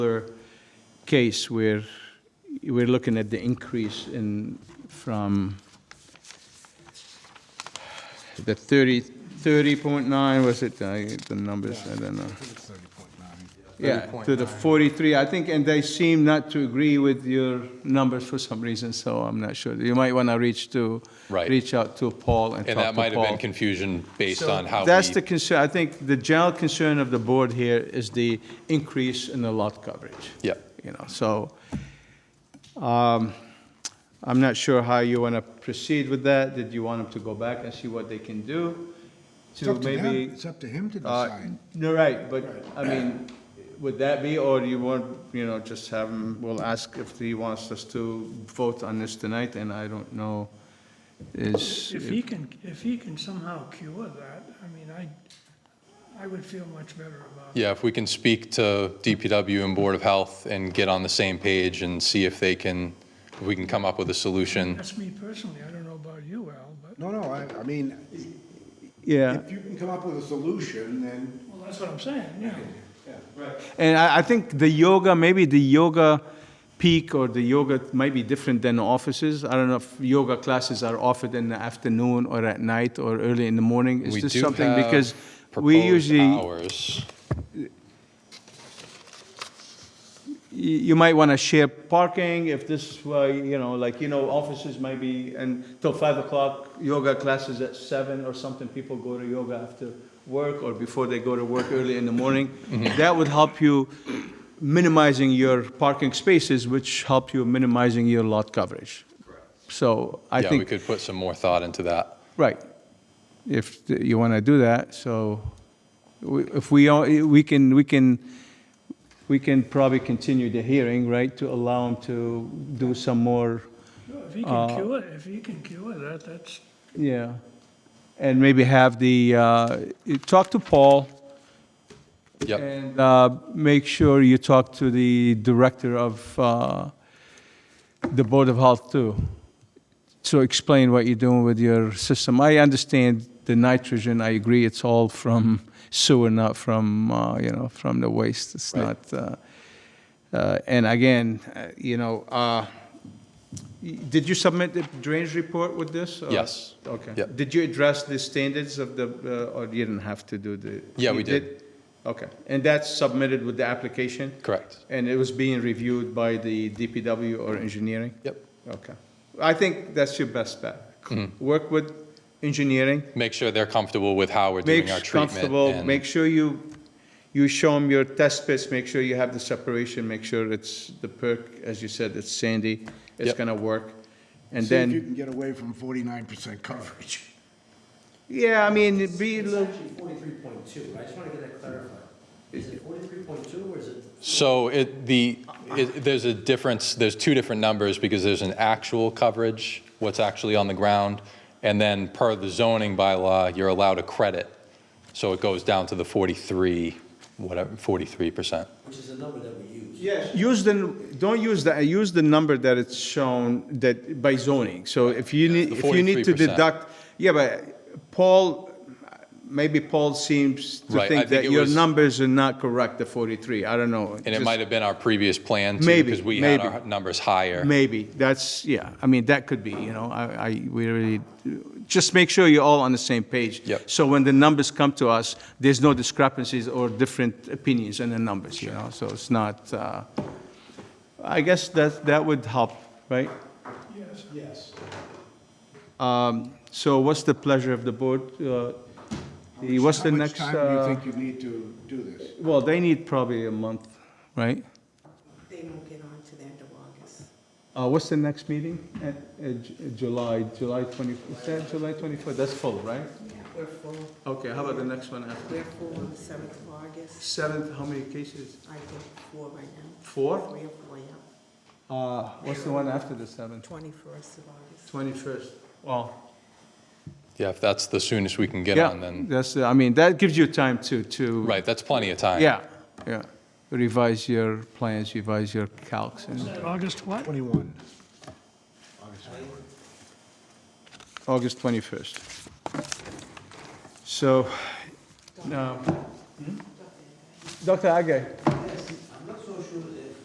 particular case where we're looking at the increase in, from the 30, 30.9, was it, I- the numbers, I don't know. Yeah, to the 43, I think, and they seem not to agree with your numbers for some reason, so I'm not sure. You might want to reach to, Right. reach out to Paul and talk to And Paul. that might have been confusion based on how That's the we, concern, I think the general concern of the board here is the increase in the lot coverage. Yeah. You know, so, um, I'm not sure how you want to proceed with that. Did you want them to go back and see what they can do? It's up to him. maybe- It's up to him to Uh, decide. No, right, but, I mean, would that be, or do you want, you know, just have him, we'll ask if he wants us to vote on this tonight, and I don't know, is, If he can, if he can somehow cure that, I mean, I, I would feel much better about it. yeah, if we can speak to DPW and Board of Health and get on the same page and see if they can, if we can come up with a solution. That's me personally, I don't know about you, Al, but, No, no, I, I mean, yeah. if you can come up with a solution, then well, that's what I'm saying, yeah. And I, I think the yoga, maybe the yoga peak or the yoga might be different than offices. I don't know if yoga classes are offered in the afternoon or at night or early in the morning. Is We this do something, have because we proposed usually, y- Hours, you might want to share parking if this, uh, you know, like, you know, offices might be until five o'clock, yoga classes at seven or something. People go to yoga after work or before they go to work early in the morning. That would help you minimizing your parking spaces, which help you minimizing your lot coverage. So I yeah, we think, could put some more thought into that. right, if th- you want to do that, so we- if we, all- we can, we can, we can probably continue the hearing, right, to allow them to do some more, No, If he can cure, if he can cure that, that's, yeah. And maybe have the, uh, you talk to Paul Yep, and uh, make sure you talk to the director of uh, the Board of Health too. So explain what you're doing with your system. I understand the nitrogen, I agree, it's all from sewer, not from, uh, you know, from the waste. It's Right. not, uh, uh, and again, uh, you know, uh, y- did you submit the drainage report with this? or- Yes. Okay. Yep. Did you address the standards of the, uh, or you didn't have to do the? Yeah, we you did. Okay, and that's submitted with the application, correct. and it was being reviewed by the DPW or engineering? Yep. Okay. I think that's your best bet. Hmm. Work with engineering, Make sure they're comfortable with how we're make doing our treatment. comfortable, and- make sure you, you show them your test pits, make sure you have the separation, make sure it's the perk, as you said, it's sandy, it's Yep. gonna work. And see if you then, can get away from forty-nine percent coverage. yeah, I mean, it'd be a It's little, actually forty-three point two, I just wanna get that clarified. Is it forty-three point two or is it? So it, the, it, there's a difference, there's two different numbers because there's an actual coverage, what's actually on the ground, and then per the zoning bylaw, you're allowed a credit. So it goes down to the 43, whatever, 43%. Which is a number that we use. Yes. Use the, don't use the, uh, use the number that it's shown that by zoning. So if you need, The if you need to 43%. deduct, yeah, but Paul, maybe Paul seems to Right, I think think that it your was- numbers are not correct, the 43. I don't know. And it Just- might have been our previous plan too. Maybe, Because we had maybe. our numbers higher. Maybe, that's, yeah, I mean, that could be, you know, I, I, we really, just make sure you're all on the same page. Yep. So when the numbers come to us, there's no discrepancies or different opinions in the numbers, you know, so it's not, uh, I guess that, that would help, right? yes. Um, So what's the pleasure of the board? Uh, the- What's the next? How much time uh, do you think you need to do this? Well, they need probably a month, right? They won't get on to the end of August. Uh, What's the next meeting? Uh, uh, Ju- July, July 20, is that July 24? That's full, right? We're full, Okay, how about the next one after? we're full on the seventh of August. Seventh, how many cases? I think four right now. Four? Three or four, yeah. Uh, what's the one after the seventh? Twenty-first of August. Twenty-first. Wow. Yeah, if that's the soonest we can get on, Yeah, then, that's, uh, I mean, that gives you time to, to. right, that's plenty of time. Yeah, yeah. Revise your plans, revise your calcs Is and that August what? Twenty-one. August twenty-first. So, um, Dr. Agay, I'm not so true, if